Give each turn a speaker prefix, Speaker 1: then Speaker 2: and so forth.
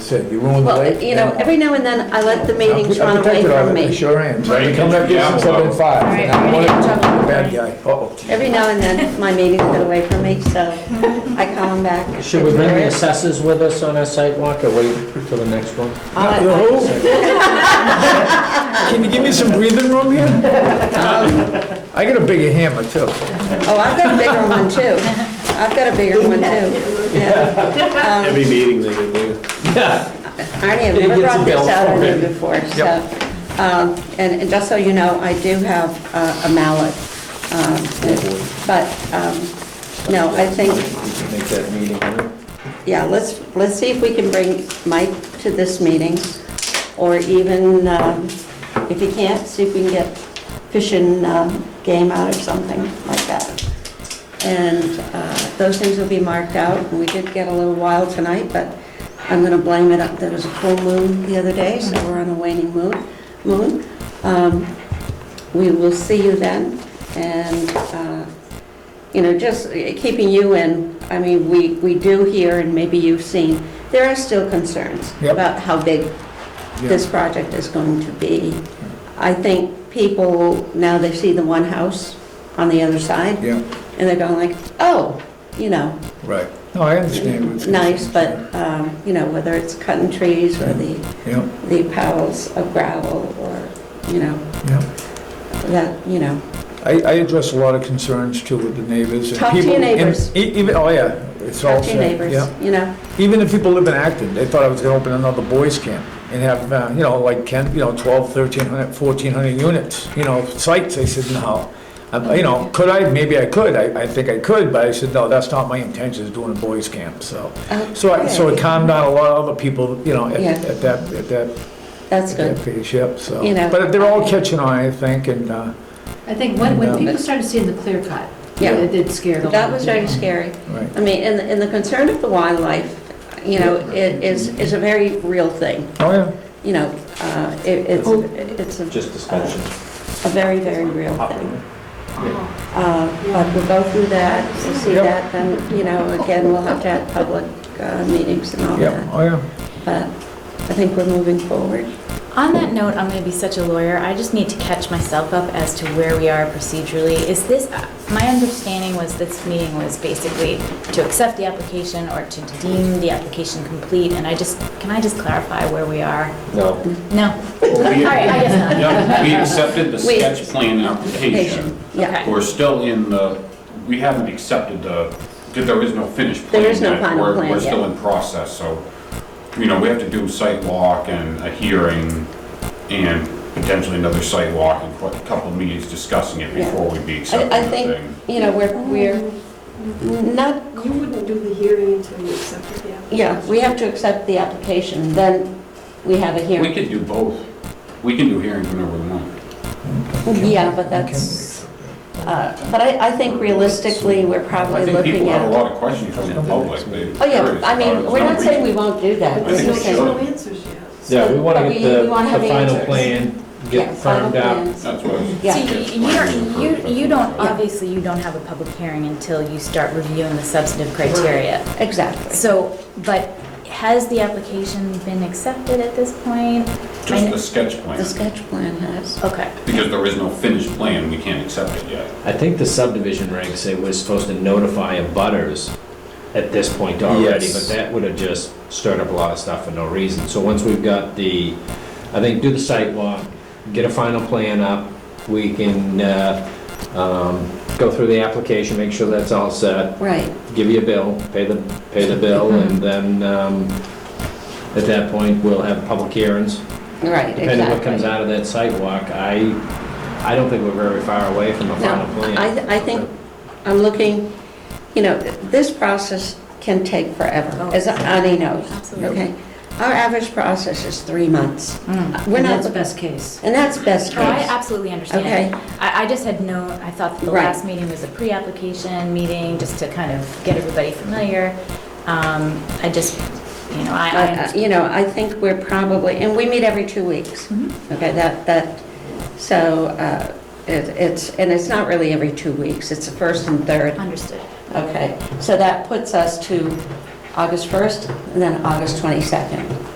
Speaker 1: said, you ruined the
Speaker 2: Well,
Speaker 1: lake.
Speaker 2: you know,
Speaker 1: and-
Speaker 2: every now and then I let the
Speaker 1: I'm
Speaker 2: meetings
Speaker 1: pre-
Speaker 2: run
Speaker 1: I'm
Speaker 2: away
Speaker 1: protected of
Speaker 2: from
Speaker 1: it, I
Speaker 2: me.
Speaker 1: sure am.
Speaker 3: Right, you
Speaker 1: Come
Speaker 3: can
Speaker 1: back here
Speaker 3: gamble
Speaker 1: since I've been
Speaker 3: about it.
Speaker 1: fired.
Speaker 4: All right,
Speaker 1: and I'm
Speaker 4: we're gonna
Speaker 1: one of
Speaker 4: get in
Speaker 1: the
Speaker 4: trouble.
Speaker 1: Bad guy, uh-oh.
Speaker 2: Every now and then, my meetings get away from me, so I call them back.
Speaker 5: Should we bring the assessors with us on our sidewalk or wait till the next one?
Speaker 2: All
Speaker 1: You
Speaker 2: right.
Speaker 1: know who? Can you give me some breathing room here? Um, I got a bigger hammer too.
Speaker 2: Oh, I've got a bigger one too. I've got a bigger one too. Yeah.
Speaker 3: Every meeting they get bigger.
Speaker 5: Yeah.
Speaker 2: Arnie, I've
Speaker 5: It
Speaker 2: never
Speaker 5: gets
Speaker 2: brought this
Speaker 5: built
Speaker 2: out on you
Speaker 5: already.
Speaker 2: before, so.
Speaker 1: Yep.
Speaker 2: um, And and just so you know, I do have uh, a mallet. um, But, um, no, I think
Speaker 1: We can Make that meeting, huh?
Speaker 2: Yeah, let's, let's see if we can bring Mike to this meeting, or even, um, if he can't, see if we can get fish and um, game out or something like that. And uh, those things will be marked out, and we did get a little wild tonight, but I'm gonna blame it, up. there was a full moon the other day, so we're on a waning moon, moon. Um, We will see you then, and uh, you know, just uh, keeping you in, I mean, we, we do hear, and maybe you've seen, there are still concerns
Speaker 1: Yep.
Speaker 2: about how big this project is going to be. I think people, now they see the one house on the other side.
Speaker 1: Yeah.
Speaker 2: And they're going like, oh, you know,
Speaker 1: Right. No, I understand. what you're
Speaker 2: nice,
Speaker 1: saying.
Speaker 2: but, um, you know, whether it's cutting trees or the,
Speaker 1: Yeah,
Speaker 2: the piles of gravel or, you know,
Speaker 1: yeah.
Speaker 2: that, you know,
Speaker 1: I, I address a lot of concerns too with the neighbors. and
Speaker 2: Talk to your
Speaker 1: people- and
Speaker 2: neighbors.
Speaker 1: e- Even, oh yeah, it's all
Speaker 2: talk to
Speaker 1: said.
Speaker 2: your neighbors,
Speaker 1: yeah.
Speaker 2: you know.
Speaker 1: Even if people live in Acton, they thought I was gonna open another boys camp and have, uh, you know, like Ken, you know, 12, 1300, 1400 units, you know, sites. I said, no. Um, You know, could I? Maybe I could. I, I think I could, but I said, no, that's not my intention, is doing a boys camp, so. So I, so it
Speaker 2: Okay,
Speaker 1: calmed down a lot of other people, you know, at
Speaker 2: Yeah.
Speaker 1: at that, at that
Speaker 2: That's good.
Speaker 1: that page, yep, so.
Speaker 2: You know.
Speaker 1: But they're all catching on, I think, and, uh,
Speaker 4: I think when,
Speaker 1: Yeah.
Speaker 4: when people started seeing the clear cut,
Speaker 2: Yeah.
Speaker 4: it did scare a lot.
Speaker 2: That
Speaker 4: of
Speaker 2: was very
Speaker 4: people.
Speaker 2: scary.
Speaker 1: right.
Speaker 2: I mean, and, and the concern of the wildlife, you know, i- is, is a very real thing,
Speaker 1: Oh, yeah.
Speaker 2: you know, uh, it- it's,
Speaker 4: Oh.
Speaker 2: it's a
Speaker 3: Just discussion.
Speaker 2: a very, very real thing. Uh, But we'll go through that, we'll see
Speaker 1: Yep.
Speaker 2: that, then, you know, again, we'll have to have public uh, meetings and all
Speaker 1: Yep,
Speaker 2: that.
Speaker 1: oh, yeah.
Speaker 2: But I think we're moving forward.
Speaker 6: On that note, I'm going to be such a lawyer. I just need to catch myself up as to where we are procedurally. Is this, uh, my understanding was this meeting was basically to accept the application or to deem the application complete, and I just, can I just clarify where we are?
Speaker 5: No.
Speaker 6: No. All
Speaker 3: Well, we-
Speaker 6: right, I guess not.
Speaker 3: Yeah, we accepted the
Speaker 2: Wait.
Speaker 3: sketch plan application.
Speaker 2: Yeah,
Speaker 6: Okay.
Speaker 3: We're still in the, we haven't accepted the, because there is no finished plan.
Speaker 2: There is no
Speaker 3: yet.
Speaker 2: final
Speaker 3: We're-
Speaker 2: plan
Speaker 3: We're still
Speaker 2: yet.
Speaker 3: in process, so, you know, we have to do site walk and a hearing and potentially another site walk and a couple of meetings discussing it
Speaker 2: Yeah.
Speaker 3: before we'd be
Speaker 2: I,
Speaker 3: accepting
Speaker 2: I
Speaker 3: the
Speaker 2: think,
Speaker 3: thing.
Speaker 2: you know, we're, we're not
Speaker 7: You wouldn't do the hearing until you accepted the application?
Speaker 2: Yeah, we have to accept the application, then we have a
Speaker 3: We
Speaker 2: hearing.
Speaker 3: could do both. We can do hearings whenever we want.
Speaker 2: Yeah, but that's, uh, but I, I think realistically, we're
Speaker 3: I
Speaker 2: probably
Speaker 3: think people
Speaker 2: looking
Speaker 3: have a
Speaker 2: at.
Speaker 3: lot of questions from the public. They're
Speaker 2: Oh, yeah,
Speaker 3: curious
Speaker 2: I
Speaker 3: about it.
Speaker 2: mean,
Speaker 3: It's
Speaker 2: we're not saying we
Speaker 3: reasonable.
Speaker 2: won't do that.
Speaker 3: I
Speaker 2: We're
Speaker 3: think
Speaker 2: just
Speaker 3: we
Speaker 2: saying-
Speaker 7: There's no answers yet.
Speaker 5: Yeah, we want
Speaker 2: But
Speaker 5: to
Speaker 2: we-
Speaker 5: get the
Speaker 2: we wanna have
Speaker 5: the final
Speaker 2: answers.
Speaker 5: plan,
Speaker 2: Yeah,
Speaker 5: get
Speaker 2: final
Speaker 5: firmed out.
Speaker 2: plans.
Speaker 3: That's what I was-
Speaker 2: Yeah.
Speaker 6: So you, you don't, you, you don't,
Speaker 2: Yeah.
Speaker 6: obviously you don't have a public hearing until you start reviewing the substantive criteria.
Speaker 2: Exactly.
Speaker 6: So, but has the application been accepted at this point?
Speaker 3: Just the sketch plan.
Speaker 2: The sketch plan has.
Speaker 6: Okay.
Speaker 3: Because there is no finished plan, we can't accept it yet.
Speaker 5: I think the subdivision regs say we're supposed to notify abutters at this point already, but that would have just stirred up a lot of stuff for no reason. So once we've got the, I think, do the site walk, get a final plan up, we can uh, um, go through the application, make sure that's all set,
Speaker 2: Right,
Speaker 5: give you a bill, pay the, pay the bill,
Speaker 2: Mm-hmm.
Speaker 5: and then um, at that point, we'll have public hearings.
Speaker 2: right,
Speaker 5: Depending what comes
Speaker 2: exactly.
Speaker 5: out of that sidewalk, I, I don't think we're very far away from a final
Speaker 2: No,
Speaker 5: plan.
Speaker 2: I, th- I think, I'm looking, you know, this process can take forever,
Speaker 6: Oh.
Speaker 2: as Ani knows.
Speaker 6: Absolutely.
Speaker 2: Okay? Our average process is three months.
Speaker 6: Mm.
Speaker 2: We're
Speaker 4: And
Speaker 2: not,
Speaker 4: that's best case.
Speaker 2: and that's best
Speaker 6: Oh, I
Speaker 2: case.
Speaker 6: absolutely understand.
Speaker 2: Okay.
Speaker 6: I, I just had no, I thought that the
Speaker 2: Right.
Speaker 6: last meeting was a pre-application meeting, just to kind of get everybody familiar. Um, I just, you know, I- I,
Speaker 2: I- I- You know, I think we're probably, and we meet every two weeks.
Speaker 6: Mhm.
Speaker 2: Okay, that, that, so uh, it- it's, and it's not really every two weeks, it's the first and third.
Speaker 6: understood.
Speaker 2: Okay, so that puts us to August 1st and then August 22nd.